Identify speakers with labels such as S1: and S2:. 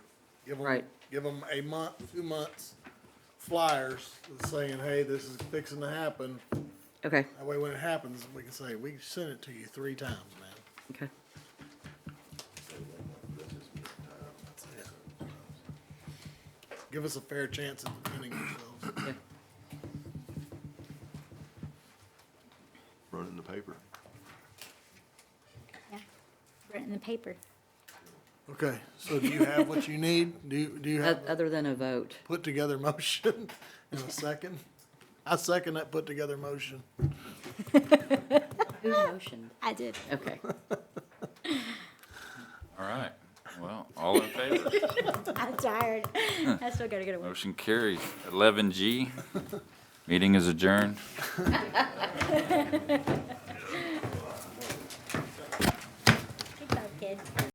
S1: Give them,
S2: Right.
S1: give them a month, two months flyers saying, hey, this is fixing to happen.
S2: Okay,
S1: That way when it happens, we can say, we sent it to you three times, man.
S2: okay.
S1: Give us a fair chance at defending ourselves.
S2: Yeah.
S3: Run it in the paper.
S4: Yeah, written in the paper.
S1: Okay, so do you have what you need? Do, you- do you have
S2: O-
S1: a
S2: Other than a vote.
S1: put together motion in a second? I second that put together motion.
S2: Who motioned?
S4: I did.
S2: Okay.
S5: All right, well, all in favor?
S4: I'm tired. I still gotta go to work.
S5: Motion carries. Eleven G, meeting is adjourned.